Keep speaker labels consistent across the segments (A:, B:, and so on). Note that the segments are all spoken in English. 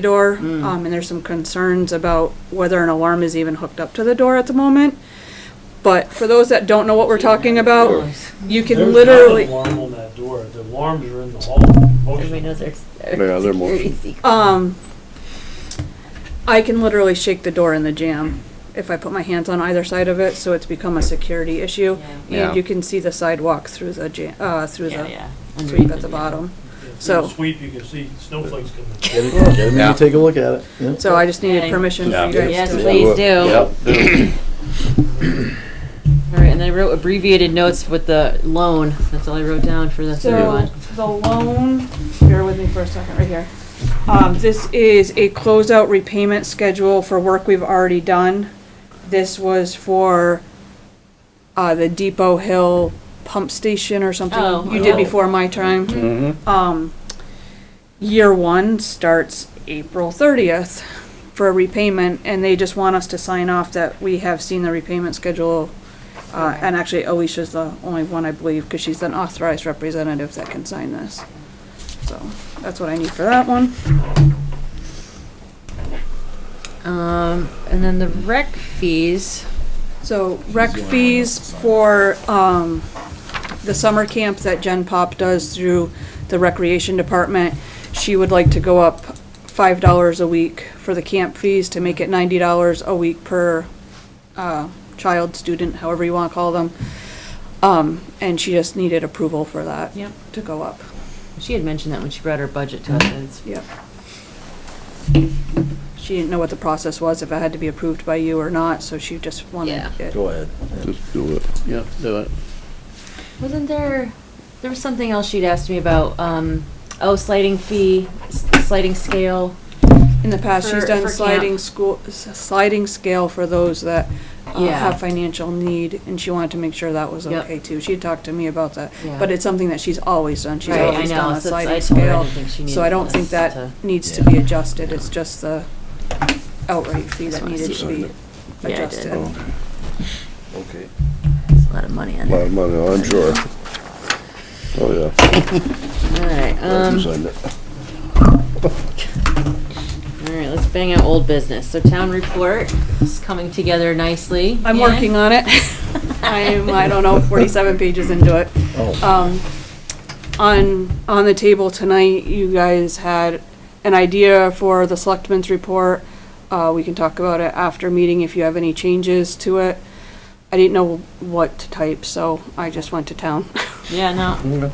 A: door,
B: Mm.
A: um, and there's some concerns about whether an alarm is even hooked up to the door at the moment. But for those that don't know what we're talking about, you can
C: There's
A: literally,
C: not an alarm on that door. The alarms are in the hall. Most of
D: Everybody
C: them.
D: knows there's.
B: Yeah, they're more-
A: um, I can literally shake the door in the jam if I put my hands on either side of it, so it's become a security issue.
B: Yeah.
A: And you can see the sidewalk through the jam, uh, through
D: Yeah,
A: the
D: yeah.
A: sweep at the bottom.
C: If
A: So-
C: you Sweep, you can see snowflakes coming.
E: Get it, get them in
B: Yeah.
E: and take a look at it, yeah.
A: So I just needed
D: Yeah.
A: permission for you
B: Yeah.
A: guys
D: Yes,
A: to.
D: please do. All right, and I wrote abbreviated notes with the loan. That's all I wrote down for the third
A: So
D: one.
A: the loan, bear with me for a second, right here. Um, this is a closeout repayment schedule for work we've already done. This was for, uh, the Depot Hill Pump Station or
D: Oh,
A: something you did
D: oh.
A: before my time.
B: Mm-hmm.
A: Um, year one starts April thirtieth for a repayment, and they just want us to sign off that we have seen the repayment schedule. Uh, and actually Alicia's the only one, I believe, because she's an authorized representative that can sign this. So, that's what I need for that one.
D: Um, and then the rec fees.
A: So rec fees for, um, the summer camp that Gen Pop does through the recreation department. She would like to go up five dollars a week for the camp fees to make it ninety dollars a week per, uh, child, student, however you wanna call them. Um, and she just needed approval for that.
D: Yep.
A: To go up.
D: She had mentioned that when she brought her budget to us. and it's-
A: Yep. She didn't know what the process was, if it had to be approved by you or not, so she just wanted
D: Yeah.
A: it.
E: Go ahead.
B: Just do it. Yep, do it.
D: Wasn't there, there was something else she'd asked me about, um, oh, sliding fee, s- sliding scale.
A: In the past, she's
D: For- for
A: done
D: camp.
A: sliding school, s- sliding scale for those that uh,
D: Yeah.
A: have financial need, and she wanted to make sure that was
D: Yep.
A: okay too. She had talked to me about that,
D: Yeah.
A: but it's something that she's always done. She's
D: Right, I
A: always
D: know,
A: done a
D: so it's- I
A: sliding
D: told her I
A: scale.
D: didn't think she
A: So I
D: needed
A: don't think
D: this
A: that
D: to-
A: needs to be adjusted, it's just the outright fee
D: That's
A: that
D: what I
A: needed to be
B: said.
D: Yeah, I did.
A: adjusted.
B: Oh,
E: Okay.
D: That's a lot of money on
B: a lot
D: there.
B: of money, I'm sure. Oh, yeah.
D: All right,
B: Glad you
D: um,
B: signed it.
D: all right, let's bang out old business. So town report is coming together nicely.
A: I'm working on it. I'm, I don't know, 47 pages into it.
E: Oh,
A: Um, on, on the table tonight, you guys had an idea for the selectmen's report. Uh, we can talk about it after meeting if you have any changes to it. I didn't know what to type, so I just went to town.
D: Yeah, no,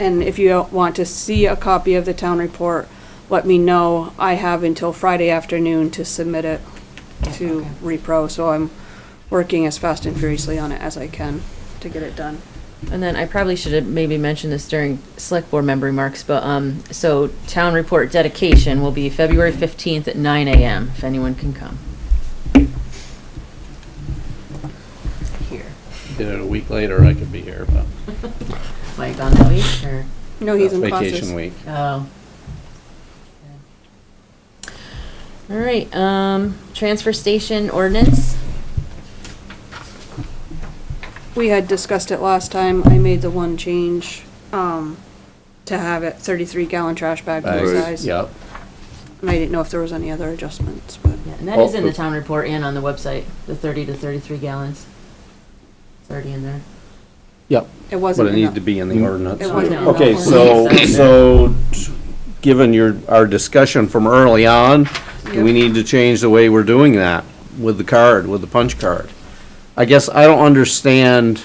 A: And if you want to see a copy of the town report, let me know. I have until Friday afternoon to submit it to repro, so I'm working as fast and furiously on it as I can to get it done.
D: and then I probably should have maybe mentioned this during select board member remarks, but, um, so town report dedication will be February fifteenth at nine AM, if anyone can come. Here.
F: Did it a week later, I could be here, but
D: Mike on that week, or?
A: No, Oh, he's in classes.
F: vacation week.
D: Oh. All right, um, transfer station ordinance.
A: We had discussed it last time. I made the one change, um, to have it thirty-three gallon trash bag for
B: Bags,
A: size.
F: Yep.
A: And I didn't know if there was any other adjustments, but
D: Yeah, And that is in the town report and on the website, the thirty to thirty-three gallons. It's already in there.
F: Yep.
A: it
F: But
A: wasn't
F: it needs to
A: enough.
F: be in the ordinance.
A: It wasn't enough.
B: Okay, so, so, t- given your, our discussion from early on, do we
A: Yep.
B: need to change the way we're doing that with the card, with the punch card? I guess I don't understand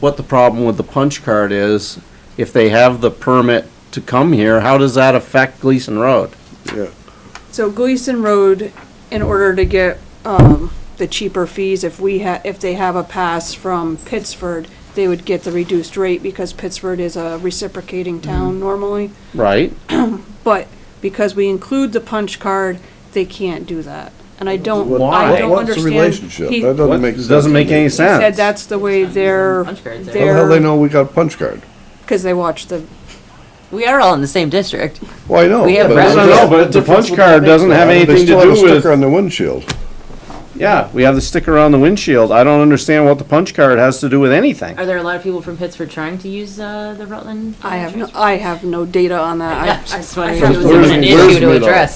B: what the problem with the punch card is. If they have the permit to come here, how does that affect Gleason Road?
A: So Gleason Road, in order to get, um, the cheaper fees, if we ha, if they have a pass from Pittsford, they would get the reduced rate because Pittsford is a reciprocating
F: Mm-hmm.
A: town normally.
B: Right?
A: But because we include the punch card, they can't do that. And I don't, I
B: Why?
A: don't understand.
E: What's the relationship?
A: He-
E: That doesn't make sense.
B: Doesn't make any
E: How
A: He said
B: sense.
A: that's the way they're,
D: Punch cards are-
E: the hell they
A: they're,
E: know we got a punch card?
A: because they watch the,
D: We are all in the same district.
E: Well, I know.
D: We have
E: but-
D: friends.
B: I don't know, but the punch card doesn't have
E: They
B: anything to
E: still have a
B: do with,
E: Sticker on the windshield.
B: Yeah, we have the sticker on the windshield. I don't understand what the punch card has to do with anything.
D: Are there a lot of people from Pittsburgh trying to use uh, the Rutland?
A: I have no, I have no data on that.
D: Yeah, I
A: I-
D: just wanted
A: I
D: to
A: have
D: it was an
E: Where's- where's
D: issue to
E: Rudolph?
D: address.